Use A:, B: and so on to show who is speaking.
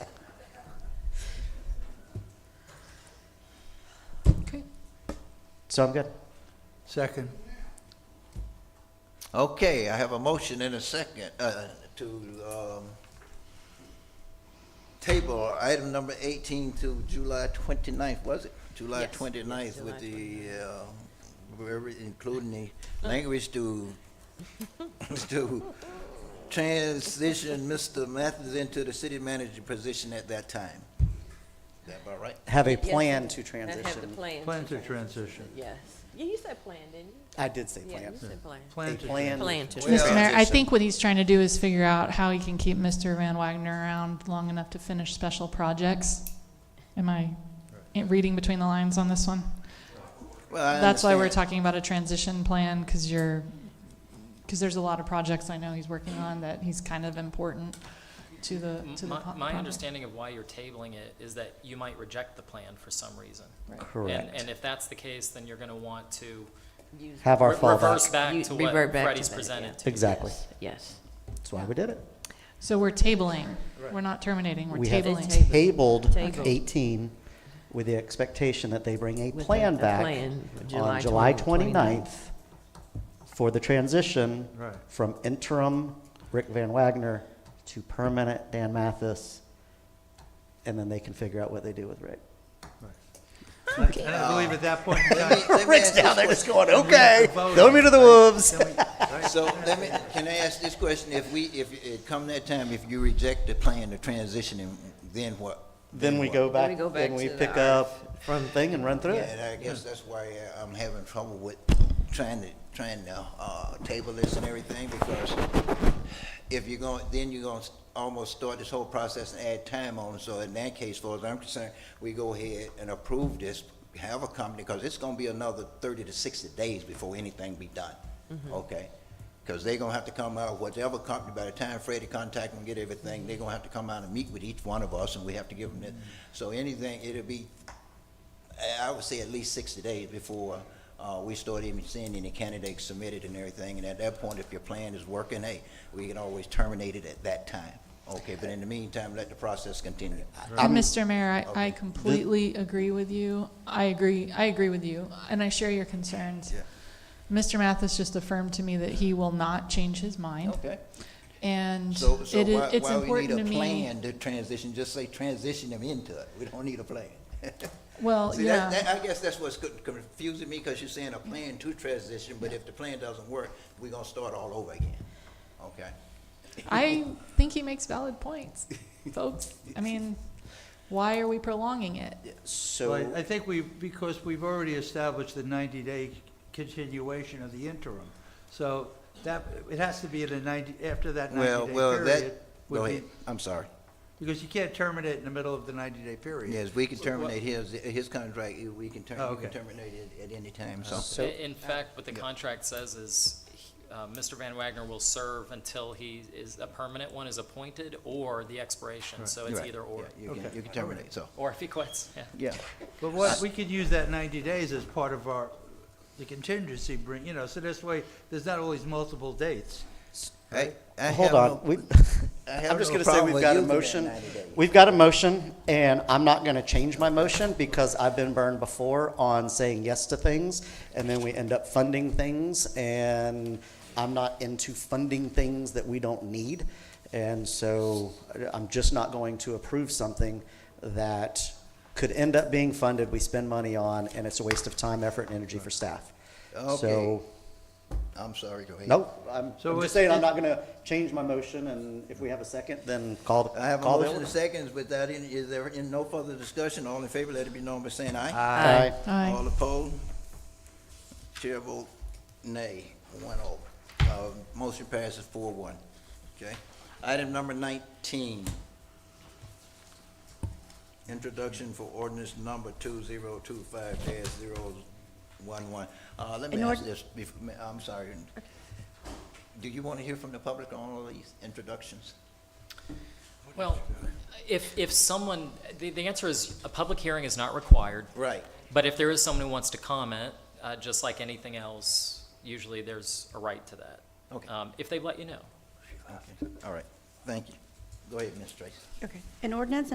A: So I'm good.
B: Second.
C: Okay, I have a motion and a second uh, to um, table item number 18 to July 29th, was it? July
D: Yes,
C: 29th
D: yes,
C: with
D: July
C: the, uh, very- including the language to, to transition Mr. Mathis into the city manager position at that time. Is that about right?
A: Have a
D: Yes,
A: plan to
D: And have the
A: transition.
D: plan.
B: Plan to transition.
D: Yes. Yeah, you said plan, didn't you?
A: I did say
D: Yeah, you
A: plan.
D: said plan.
A: A
B: Plan to.
A: plan.
D: Plan to
C: Well-
E: Mr. Mayor, I
A: transition.
E: think what he's trying to do is figure out how he can keep Mr. Van Wagner around long enough to finish special projects. Am I in- reading between the lines on this one?
C: Well, I
E: That's why we're
C: understand.
E: talking about a transition plan, because you're, because there's a lot of projects I know he's working on that he's kind of important to the, to the.
F: My,
E: po-
F: my
E: project.
F: understanding of why you're tabling it is that you might reject the plan for some reason. And,
A: Correct.
F: and if that's the case, then you're gonna want to
D: Use-
A: Have our
F: re- reverse
A: fallback.
F: back
D: You-
F: to what
D: revert back to
F: Freddie's
D: that, yeah.
F: presented to.
A: Exactly.
D: Yes.
A: That's why we did it.
E: So we're tabling. We're not terminating, we're
A: We have
E: tabling.
D: Table.
A: tabled
D: Table.
A: 18 with the expectation that they bring a
D: With
A: plan
D: the- the
A: back
D: plan,
A: on
D: July
A: July
D: 20, 29th.
A: 29th for the transition
B: Right.
A: from interim Rick Van Wagner to permanent Dan Mathis, and then they can figure out what they do with Rick.
B: And I believe at that point in
C: Let
B: time.
C: me- let me
A: Rick's
C: ask this
A: down there just
C: question.
A: going, okay,
B: vote
A: throw me to the wolves.
B: Can we- right?
C: So let me, can I ask this question? If we, if it come that time, if you reject the plan to transition, and then what?
A: Then we
C: what?
A: go
D: Then
A: back,
D: we go back
A: and we
D: to the
A: pick up from thing and run through
C: Yeah,
A: it.
C: and I guess that's why uh, I'm having trouble with trying to, trying to, uh, table this and everything, because if you're going, then you're gonna almost start this whole process and add time on, so in that case, as far as I'm concerned, we go ahead and approve this, have a company, because it's gonna be another thirty to sixty days before anything be done,
A: Mm-hmm.
C: okay? Because they're gonna have to come out, whatever company, by the time Freddie contact them, get everything, they're gonna have to come out and meet with each one of us, and we have to give them this.
A: Mm-hmm.
C: So anything, it'll be I- I would say at least sixty days before uh, we start even seeing any candidates submitted and everything. And at that point, if your plan is working, hey, we can always terminate it at that time. Okay, but in the meantime, let the process continue.
E: And Mr. Mayor, I,
C: Okay.
E: I completely agree with you. I agree, I agree with you, and I share your concerns.
C: Yeah.
E: Mr. Mathis just affirmed to me that he will not change his mind,
C: Okay,
E: and
C: so, so
E: it is,
C: why,
E: it's
C: why we need
E: important
C: a
E: to me.
C: plan to transition, just say transition them into it. We don't need a plan.
E: Well,
C: See, that,
E: yeah,
C: that, I guess that's what's co- confusing me, because you're saying a plan to transition, but if the plan doesn't work, we're gonna start all over again. Okay?
E: I think he makes valid points, folks. I mean, why are we prolonging it?
A: So,
B: Well, I- I think we, because we've already established the 90-day continuation of the interim. So that, it has to be in a 90, after that 90-day period. would
C: Go
B: be-
C: ahead, I'm sorry.
B: Because you can't terminate in the middle of the 90-day period.
C: Yes, we can
B: So what-
C: terminate his, his contract, we can term,
B: Oh,
C: we can
B: okay.
C: terminate it at any time, so.
A: So-
F: I- In fact, what the contract says is, he- uh, Mr. Van Wagner will serve until he is, a permanent one is appointed or the expiration, so it's
C: Right.
F: either or.
C: Yeah, You can,
B: Okay.
C: you can terminate, so,
F: Or if he quits, yeah.
C: yeah.
B: But what, we could use that 90 days as part of our, the contingency bring, you know, so this way, there's not always multiple dates.
C: I- I
A: hold
C: have no-
A: on, we,
C: I have
A: I'm just
C: no
A: gonna say
C: problem
A: we've
C: with
A: got a
C: using that
A: motion.
C: 90 days.
A: We've got a motion, and I'm not gonna change my motion because I've been burned before on saying yes to things, and then we end up funding things, and I'm not into funding things that we don't need. And so I'm just not going to approve something that could end up being funded, we spend money on, and it's a waste of time, effort, and energy for staff.
C: Okay.
A: So,
C: I'm sorry, go ahead.
A: Nope, I'm,
B: So
A: I'm
B: it's-
A: just saying I'm not gonna change my motion, and if we have a second, then call,
C: I have a
A: call the
C: motion
A: order.
C: and seconds, but that, in- is there, in no further discussion, all in favor, let it be known by saying aye.
A: Aye.
E: Aye.
C: All opposed? Chair vote nay, one oh. Uh, motion passes four one, okay? Item number nineteen. Introduction for ordinance number two zero two five 11 Uh, let me
D: An
C: ask
D: ord-
C: this, bef- ma- I'm sorry. Do you want to hear from the public on all these introductions?
F: Well, if, if someone, the, the answer is, a public hearing is not required.
C: Right.
F: But if there is someone who wants to comment, uh, just like anything else, usually there's a right to that.
C: Okay.
F: Um, If they've let you know.
C: Okay, all right, thank you. Go ahead, Ms. Tracy.
G: Okay. An ordinance